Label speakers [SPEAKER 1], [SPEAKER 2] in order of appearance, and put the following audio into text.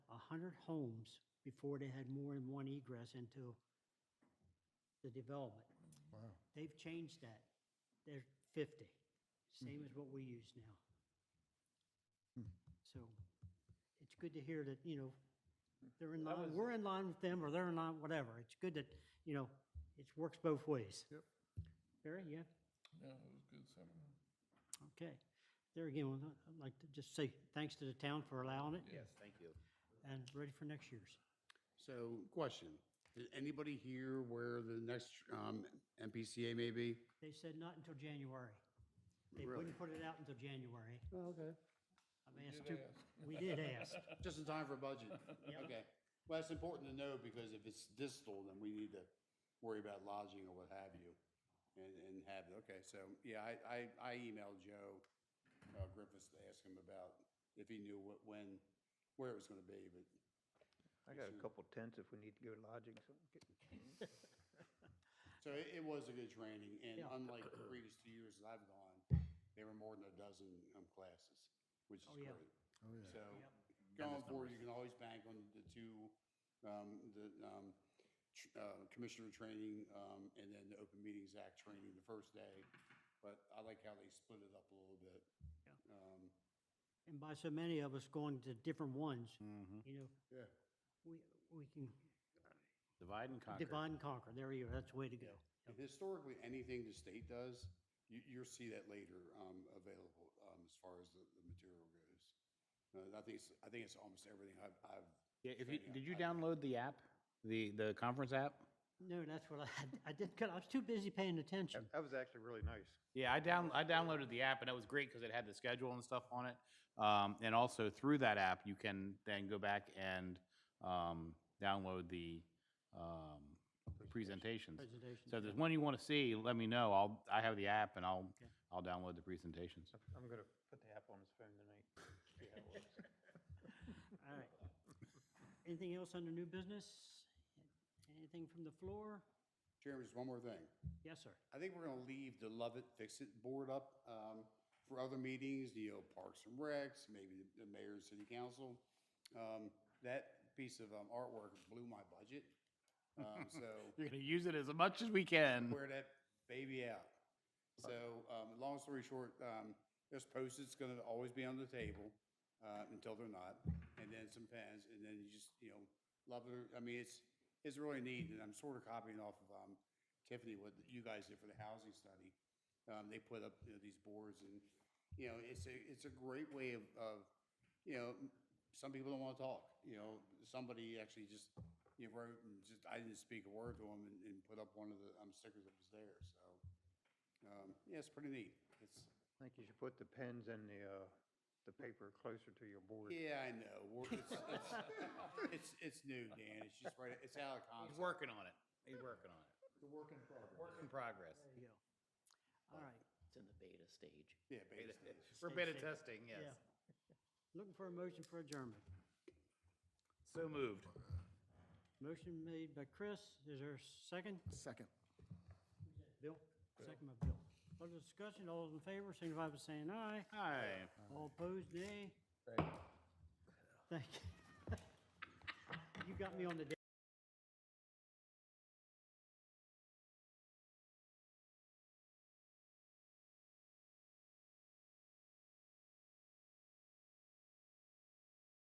[SPEAKER 1] 100 homes before they had more than one egress into the development.
[SPEAKER 2] Wow.
[SPEAKER 1] They've changed that. They're 50,
[SPEAKER 2] Hmm.
[SPEAKER 1] same as what we use now. So it's good to hear that, you know, they're in line, we're in line with them, or they're in line, whatever. It's good that, you know, it works both ways.
[SPEAKER 2] Yep.
[SPEAKER 1] Barry, yeah?
[SPEAKER 3] Yeah, it was a good seminar.
[SPEAKER 1] Okay. There again, I'd like to just say thanks to the town for allowing it
[SPEAKER 4] Yes, thank you.
[SPEAKER 1] and ready for next year's.
[SPEAKER 5] So, question, did anybody hear where the next um, MPCA may be?
[SPEAKER 1] They said not until January. They
[SPEAKER 5] Really?
[SPEAKER 1] wouldn't put it out until January.
[SPEAKER 5] Okay.
[SPEAKER 1] I've asked two, we did ask.
[SPEAKER 5] Just in time for budget?
[SPEAKER 1] Yep.
[SPEAKER 5] Okay. Well, that's important to know because if it's distal, then we need to worry about lodging or what have you and, and have, okay, so, yeah, I, I, I emailed Joe uh, Griffiths to ask him about if he knew what, when, where it was gonna be, but
[SPEAKER 4] I got a couple tents if we need to go lodging. so-
[SPEAKER 5] So it, it was a good training, and
[SPEAKER 1] Yeah.
[SPEAKER 5] unlike the previous two years that I've gone, there were more than a dozen um, classes, which is
[SPEAKER 1] Oh, yeah.
[SPEAKER 5] great. So going forward, you can always bank on the two, um, the, um, tr- uh, commissioner training, um, and then the Open Meetings Act training the first day. But I like how they split it up a little bit. Um,
[SPEAKER 1] And by so many of us going to different ones, you know,
[SPEAKER 5] Yeah.
[SPEAKER 1] we, we can
[SPEAKER 6] Divide and conquer.
[SPEAKER 1] divide and conquer. There you go. That's the way to go.
[SPEAKER 5] And Historically, anything the state does, you, you'll see that later, um, available, um, as far as the, the material goes. Uh, I think it's, I think it's almost everything I've, I've.
[SPEAKER 6] Yeah, if you, did you download the app, the, the conference app?
[SPEAKER 1] No, that's what I, I did, 'cause I was too busy paying attention.
[SPEAKER 4] That was actually really nice.
[SPEAKER 6] Yeah, I down, I downloaded the app and it was great because it had the schedule and stuff on it. Um, and also through that app, you can then go back and, um, download the, um, presentations.
[SPEAKER 1] Presentations,
[SPEAKER 6] So if there's one you want to see, let me know. I'll, I have the app and I'll, I'll download the presentations.
[SPEAKER 4] I'm going to put the app on his phone tonight. see how it works.
[SPEAKER 1] All right. Anything else under new business? Anything from the floor?
[SPEAKER 5] Chairman, just one more thing.
[SPEAKER 1] Yes, sir.
[SPEAKER 5] I think we're gonna leave the Love It, Fix It board up, um, for other meetings, you know, Parks and Recs, maybe the mayor and city council. Um, that piece of, um, artwork blew my budget. Um, so
[SPEAKER 6] You're going to use it as much as we can.
[SPEAKER 5] wear that baby out. So, um, long story short, um, there's post-its gonna always be on the table, uh, until they're not, and then some pens, and then you just, you know, love it, I mean, it's, it's really neat, and I'm sort of copying off of, um, Tiffany, what you guys did for the housing study. Um, they put up, you know, these boards, and, you know, it's a, it's a great way of, of, you know, some people don't wanna talk, you know, somebody actually just, you know, wrote and just, I didn't speak a word to him and, and put up one of the, um, stickers that was there, so. Um, yeah, it's pretty neat, it's,
[SPEAKER 4] I think you should put the pens and the, uh, the paper closer to your board.
[SPEAKER 5] yeah, I know, We're- it's, it's, it's, it's new, Dan, it's just right, it's out of
[SPEAKER 6] He's
[SPEAKER 5] concept.
[SPEAKER 6] working on it. He's working on it.
[SPEAKER 2] The work in progress.
[SPEAKER 6] Work in progress.
[SPEAKER 1] There you go. All right.
[SPEAKER 7] It's in the beta stage.
[SPEAKER 5] Yeah, beta stage.
[SPEAKER 6] We're beta testing, yes.
[SPEAKER 1] Yeah. Looking for a motion for adjournment.
[SPEAKER 6] So moved.
[SPEAKER 1] Motion made by Chris. Is there a second?
[SPEAKER 2] Second.
[SPEAKER 1] Bill? Second by Bill. Further discussion, all those in favor, signify by saying aye.
[SPEAKER 6] Hi.
[SPEAKER 1] All opposed, nay. Thank you. You got me on the